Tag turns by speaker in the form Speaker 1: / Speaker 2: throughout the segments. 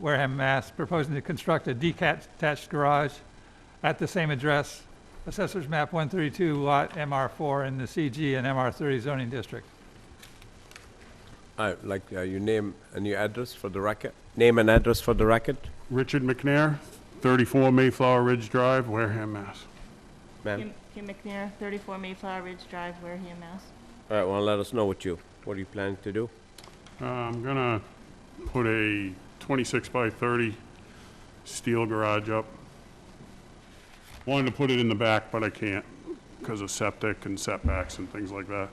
Speaker 1: Wareham, Mass., proposing to construct a detached garage at the same address, Assessor's Map 132, Lot MR4, in the CG and MR30 zoning district.
Speaker 2: Uh, Like uh, your name and your address for the record? Name and address for the record?
Speaker 3: Richard McNair, 34 Mayflower Ridge Drive, Wareham, Mass.
Speaker 2: Ma'am?
Speaker 4: Kim Kim McNair, 34 Mayflower Ridge Drive, Wareham, Mass.
Speaker 2: All right, well, let us know what you, what are you planning to do?
Speaker 3: Uh, I'm gonna put a 26 by 30 steel garage up. Wanted to put it in the back, but I can't because of septic and setbacks and things like that.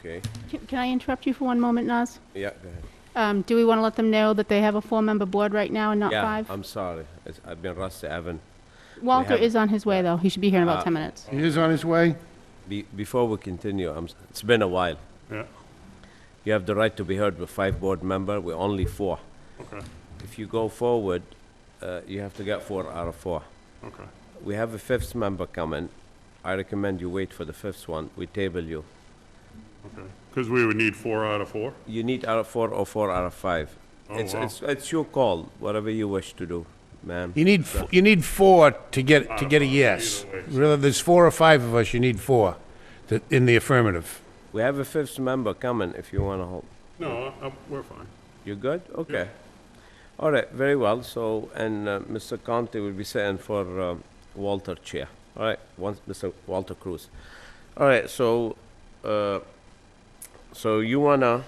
Speaker 2: Okay,
Speaker 5: Can can I interrupt you for one moment, Naz?
Speaker 2: yeah, go ahead.
Speaker 5: Um, Do we want to let them know that they have a four-member board right now and not
Speaker 2: Yeah,
Speaker 5: five?
Speaker 2: I'm sorry, It's- I've been rusty, I haven't.
Speaker 5: Walter
Speaker 2: have-
Speaker 5: is on his way, though. He should be here in
Speaker 2: Uh,
Speaker 5: about 10 minutes.
Speaker 6: He is on his way?
Speaker 2: be- Before we continue, I'm s- it's been a while.
Speaker 3: Yeah,
Speaker 2: You have the right to be heard with five board member, we're only four.
Speaker 3: okay,
Speaker 2: If you go forward, uh, you have to get four out of four.
Speaker 3: okay.
Speaker 2: We have a fifth member coming. I recommend you wait for the fifth one. We table you.
Speaker 3: Because we would need four out of four?
Speaker 2: You need out of four or four out of five.
Speaker 3: Oh,
Speaker 2: It's,
Speaker 3: wow.
Speaker 2: it's, it's your call, whatever you wish to do, ma'am.
Speaker 6: You need, f- you need four to get, to get a yes.
Speaker 3: Either way.
Speaker 6: Really, there's four or five of us, you need four to- in the affirmative.
Speaker 2: We have a fifth member coming if you wanna hold.
Speaker 3: No, I- I- we're fine.
Speaker 2: You good? Okay. All right, very well. So, and uh, Mr. Conte will be sitting for um, Walter Chair. All right, once Mr. Walter Cruz. All right, so, uh, so you wanna,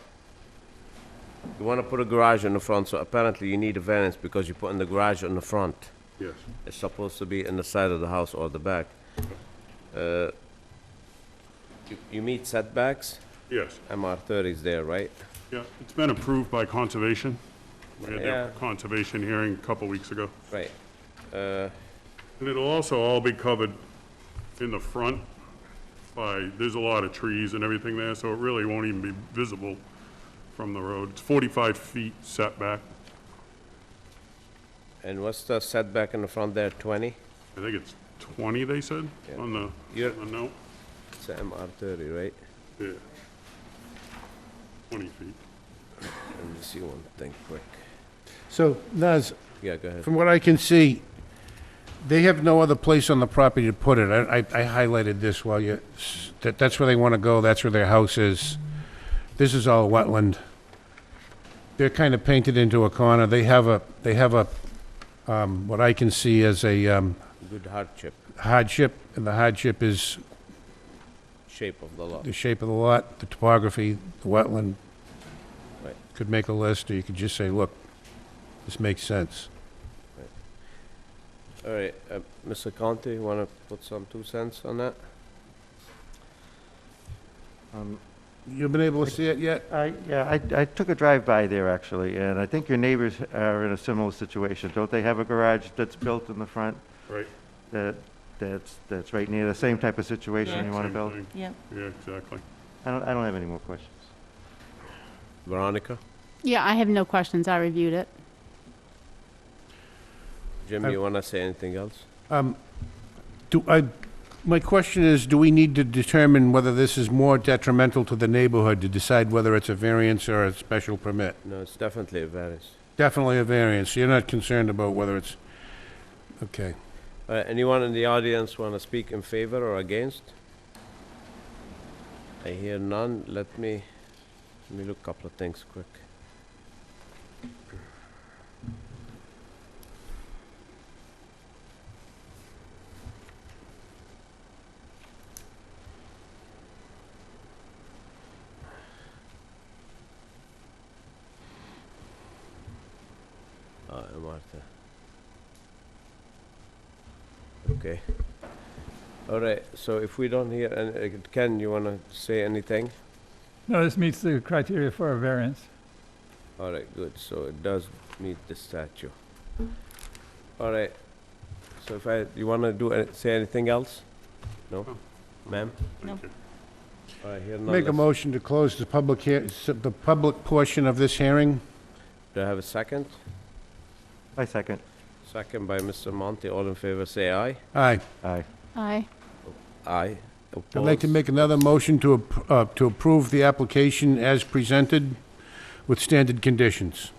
Speaker 2: you wanna put a garage in the front, so apparently you need a variance because you're putting the garage in the front.
Speaker 3: Yes.
Speaker 2: It's supposed to be in the side of the house or the back. Uh, you- You meet setbacks?
Speaker 3: Yes,
Speaker 2: MR thirty is there, right?
Speaker 3: yeah. It's been approved by Conservation. We had
Speaker 2: Yeah.
Speaker 3: their Conservation hearing a couple weeks ago.
Speaker 2: Right. Uh,
Speaker 3: And it'll also all be covered in the front by, there's a lot of trees and everything there, so it really won't even be visible from the road. It's 45 feet setback.
Speaker 2: And what's the setback in the front there, 20?
Speaker 3: I think it's 20, they said,
Speaker 2: Yeah.
Speaker 3: on the,
Speaker 2: Yeah.
Speaker 3: on the note.
Speaker 2: It's MR 30, right?
Speaker 3: Yeah. 20 feet.
Speaker 2: Let me see one thing quick.
Speaker 6: So, Naz,
Speaker 2: Yeah, go ahead.
Speaker 6: from what I can see, they have no other place on the property to put it. I, I I highlighted this while you, s- that, that's where they want to go, that's where their house is. This is all wetland. They're kind of painted into a corner. They have a, they have a, um, what I can see as a, um,
Speaker 2: Good hardship,
Speaker 6: hardship, and the hardship is
Speaker 2: shape of the lot.
Speaker 6: the shape of the lot, the topography, the wetland.
Speaker 2: Right.
Speaker 6: Could make a list, or you could just say, look, this makes sense.
Speaker 2: All right, uh, Mr. Conte, you want to put some two cents on that?
Speaker 7: Um,
Speaker 6: You've been able to see it yet?
Speaker 7: I, yeah, I, I took a drive by there actually, and I think your neighbors are in a similar situation. Don't they have a garage that's built in the front
Speaker 3: Right.
Speaker 7: that, that's, that's right near the same type of situation you want to
Speaker 3: Same
Speaker 7: build?
Speaker 3: thing.
Speaker 4: Yep.
Speaker 3: Yeah, exactly.
Speaker 7: I don't, I don't have any more questions.
Speaker 2: Veronica?
Speaker 5: Yeah, I have no questions. I reviewed it.
Speaker 2: Jim,
Speaker 6: I-
Speaker 2: you want to say anything else?
Speaker 6: Um, do I, my question is, do we need to determine whether this is more detrimental to the neighborhood to decide whether it's a variance or a special permit?
Speaker 2: No, it's definitely a variance.
Speaker 6: Definitely a variance. You're not concerned about whether it's, okay.
Speaker 2: All right, Uh, anyone in the audience want to speak in favor or against? I hear none. Let me, let me look a couple of things quick. Uh, Martha. Okay. All right, so if we don't hear, and Ken, you want to say anything?
Speaker 1: No, this meets the criteria for a variance.
Speaker 2: All right, good, so it does meet the statute. All right, so if I, you want to do, any- say anything else? No?
Speaker 3: No.
Speaker 2: Ma'am?
Speaker 3: Thank you.
Speaker 2: All right, here, none.
Speaker 6: Make a
Speaker 2: Let's-
Speaker 6: motion to close the public hea, the public portion of this hearing?
Speaker 2: Do I have a second?
Speaker 7: I second.
Speaker 2: Second by Mr. Monte, all in favor, say aye.
Speaker 6: Aye.
Speaker 7: Aye.
Speaker 5: Aye.
Speaker 2: Aye.
Speaker 6: I'd like to
Speaker 2: Opposed?
Speaker 6: make another motion to, ap- uh, to approve the application as presented with standard conditions.